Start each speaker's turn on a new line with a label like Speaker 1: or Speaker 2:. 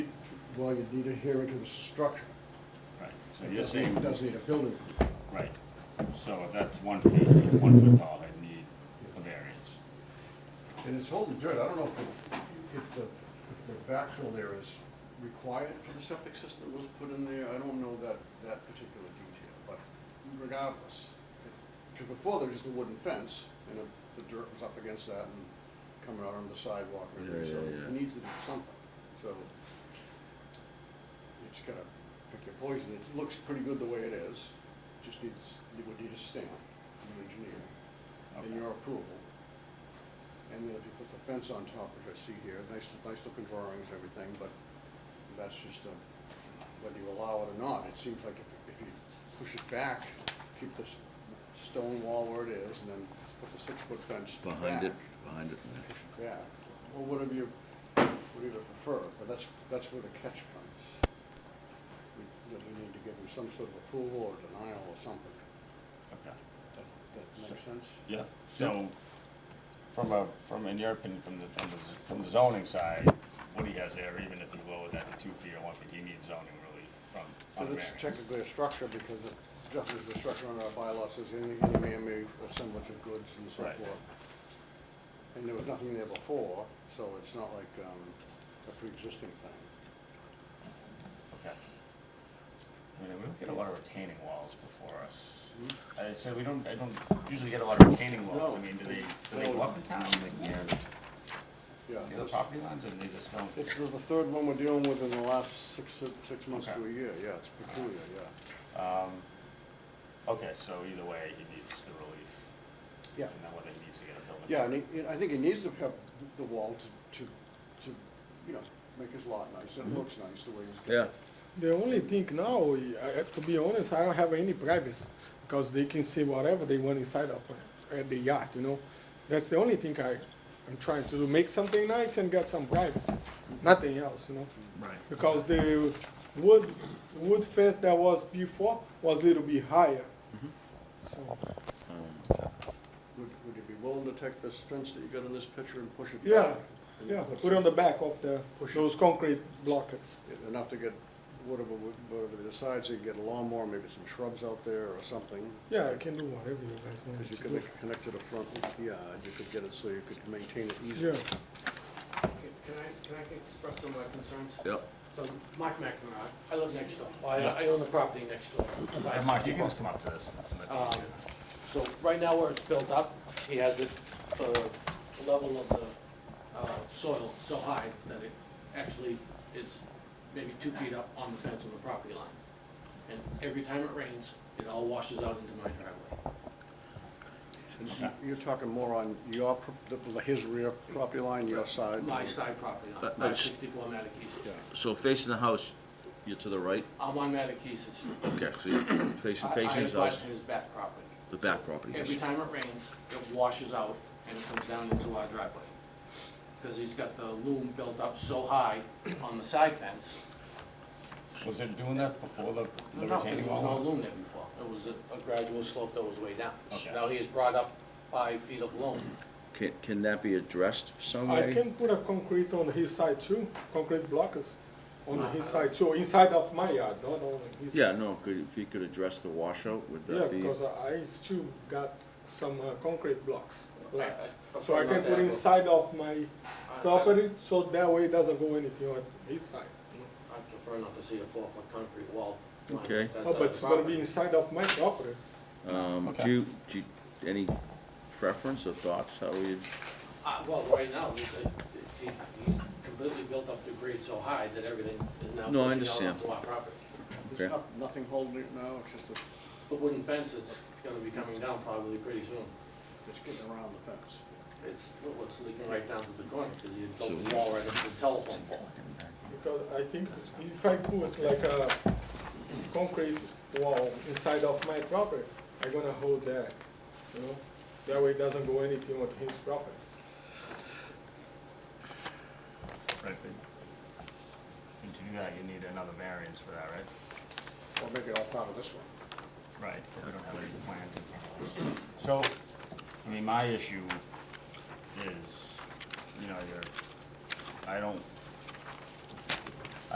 Speaker 1: well, you'd need to adhere to the structure.
Speaker 2: Right, so
Speaker 1: It
Speaker 2: you're
Speaker 1: doesn't- It
Speaker 2: saying,
Speaker 1: doesn't need a building.
Speaker 2: right, so if that's one feet, one foot tall, I'd need a variance.
Speaker 1: And it's holding dirt, I don't know if the, if the, if the backfill there is required for the septic system that was put in there, I don't know that, that particular detail, but regardless. Because before there was just a wooden fence, and the- the dirt was up against that and coming out on the sidewalk and
Speaker 3: Yeah,
Speaker 1: everything, so
Speaker 3: yeah, yeah.
Speaker 1: it needs to do something, so. It's gonna pick your poison, it looks pretty good the way it is, just needs, you would need a stamp from the engineer,
Speaker 2: Okay.
Speaker 1: and your approval. And then if you put the fence on top, which I see here, nice, nice looking drawings, and everything, but that's just a, whether you allow it or not, it seems like if, if you push it back, keep the s- stone wall where it is, and then put the six-foot fence back.
Speaker 3: behind it, behind it.
Speaker 1: Push it back, or whatever you, whatever you prefer, but that's, that's where the catch comes. We, you know, we need to give them some sort of approval or denial or something.
Speaker 2: Okay,
Speaker 1: That, that makes sense?
Speaker 2: yeah, so, from a, from, in your opinion, from the, from the, z- from the zoning side, what he has there, even if you lower that to two feet or one foot, you need zoning relief from,
Speaker 1: Well,
Speaker 2: on the
Speaker 1: it's
Speaker 2: variance.
Speaker 1: technically a structure because the definition of a structure under our bylaws says any any man-made assemblage of goods and so
Speaker 2: Right.
Speaker 1: forth. And there was nothing there before, so it's not like um, a pre-existing thing.
Speaker 2: Okay. I mean, we don't get a lot of retaining walls before us. I said, we don't, I don't usually get a lot of retaining walls, I
Speaker 1: Hmm? No.
Speaker 2: mean, do they, do they
Speaker 1: No.
Speaker 2: go up in town, like near
Speaker 1: Yeah,
Speaker 2: the other
Speaker 1: this-
Speaker 2: property lines, or they just don't?
Speaker 1: it's the the third one we're dealing with in the last six, six months to a
Speaker 2: Okay.
Speaker 1: year, yeah, it's peculiar, yeah.
Speaker 2: Um, okay, so either way, he needs the relief.
Speaker 1: Yeah.
Speaker 2: And then whether he needs to get a building.
Speaker 1: Yeah, and he- and I think he needs to have the wall to, to, to, you know, make his lot nice,
Speaker 4: Mm-hmm.
Speaker 1: and it looks nice the way he's got
Speaker 3: Yeah,
Speaker 1: it.
Speaker 4: The only thing now, I- I- to be honest, I don't have any privacy because they can see whatever they want inside of uh, at the yacht, you know. That's the only thing I, I'm trying to do, make something nice and get some privacy, nothing else, you know.
Speaker 3: Right.
Speaker 4: Because the wood, wood fence that was before was a little bit higher.
Speaker 1: Mm-hmm.
Speaker 4: So,
Speaker 3: Um,
Speaker 1: Would, would you be willing to take this fence that you got in this picture and push it back?
Speaker 4: yeah,
Speaker 1: And
Speaker 4: yeah,
Speaker 1: put
Speaker 4: put on the back of the,
Speaker 1: Push it.
Speaker 4: those concrete blockets.
Speaker 1: some- Enough to get whatever, whatever they decide, so you can get a lawnmower, maybe some shrubs out there or something.
Speaker 4: Yeah, I can do whatever you guys want me
Speaker 1: Because you
Speaker 4: to
Speaker 1: could
Speaker 4: do.
Speaker 1: make it connect to the front of the yard, you could get it so you could maintain it easier.
Speaker 4: Yeah,
Speaker 5: Can can I, can I express some of my concerns?
Speaker 3: Yep.
Speaker 5: So, Mike McNamara, I live next door, I, I own the property next door.
Speaker 2: Hey, Mark, you can just come up to this.
Speaker 5: Um, So, right now where it's built up, he has it, the the level of the uh, soil so high that it actually is maybe two feet up on the fence of the property line. And every time it rains, it all washes out into my driveway.
Speaker 1: And You're talking more on your, pro- the- his rear property line, your side?
Speaker 5: My side property line,
Speaker 3: That-
Speaker 5: five
Speaker 3: that's-
Speaker 5: sixty-four Matakeesis.
Speaker 1: Yeah.
Speaker 3: so facing the house, you're to the right?
Speaker 5: I'm on Matakeesis.
Speaker 3: Okay, so you're facing,
Speaker 5: I-
Speaker 3: facing his
Speaker 5: I abut
Speaker 3: house,
Speaker 5: his back property.
Speaker 3: the back property.
Speaker 5: Every
Speaker 3: yes.
Speaker 5: time it rains, it washes out and it comes down into our driveway. Because he's got the loom built up so high on the side fence.
Speaker 2: Was it doing that before the the
Speaker 5: No, no, 'cause
Speaker 2: retaining
Speaker 5: there was no
Speaker 2: wall?
Speaker 5: loom there before. It was a- a gradual slope that was way down.
Speaker 2: Okay.
Speaker 5: Now he has brought up five feet of loom.
Speaker 3: Can, can that be addressed some
Speaker 4: I
Speaker 3: way?
Speaker 4: can put a concrete on his side too, concrete blockers on
Speaker 5: Uh,
Speaker 4: his side too, inside of my yard, not on his.
Speaker 3: Yeah, no, could, if you could address the washout, would
Speaker 4: Yeah,
Speaker 3: that be?
Speaker 4: because I I still got some uh, concrete blocks left,
Speaker 5: I- I-
Speaker 4: so I can
Speaker 5: not
Speaker 4: put
Speaker 5: that-
Speaker 4: inside of my
Speaker 5: I- I-
Speaker 4: property, so that way it doesn't go anything on his side.
Speaker 5: I prefer not to see a four-foot concrete wall. line up
Speaker 3: Okay.
Speaker 5: that
Speaker 4: No,
Speaker 5: side
Speaker 4: Oh, but
Speaker 5: of
Speaker 4: it's
Speaker 5: the
Speaker 4: gonna
Speaker 5: property.
Speaker 4: be inside of my property.
Speaker 3: Um,
Speaker 2: Okay.
Speaker 3: do you, do you, any preference or thoughts, how we,
Speaker 5: Uh, well, right now, he's, uh, he- he's completely built up the grade so high that everything is now
Speaker 3: No, I
Speaker 5: pushing out
Speaker 3: understand.
Speaker 5: onto our property.
Speaker 3: Okay.
Speaker 1: There's noth- nothing holding it now, it's just, a-
Speaker 5: The wooden fence that's gonna be coming down probably pretty soon.
Speaker 1: it's getting around the fence.
Speaker 5: It's, well, it's leaking right down to the corner, because you
Speaker 3: So-
Speaker 5: built the wall right up to the telephone pole.
Speaker 4: Because I think if I put like a concrete wall inside of my property, I'm gonna hold that, you know? That way it doesn't go anything on his property.
Speaker 2: Right, but, and to do that, you need another variance for that, right?
Speaker 1: Or make it all part of this one.
Speaker 2: Right. But we don't have any plans in front of us. So, I mean, my issue is, you know, you're, I don't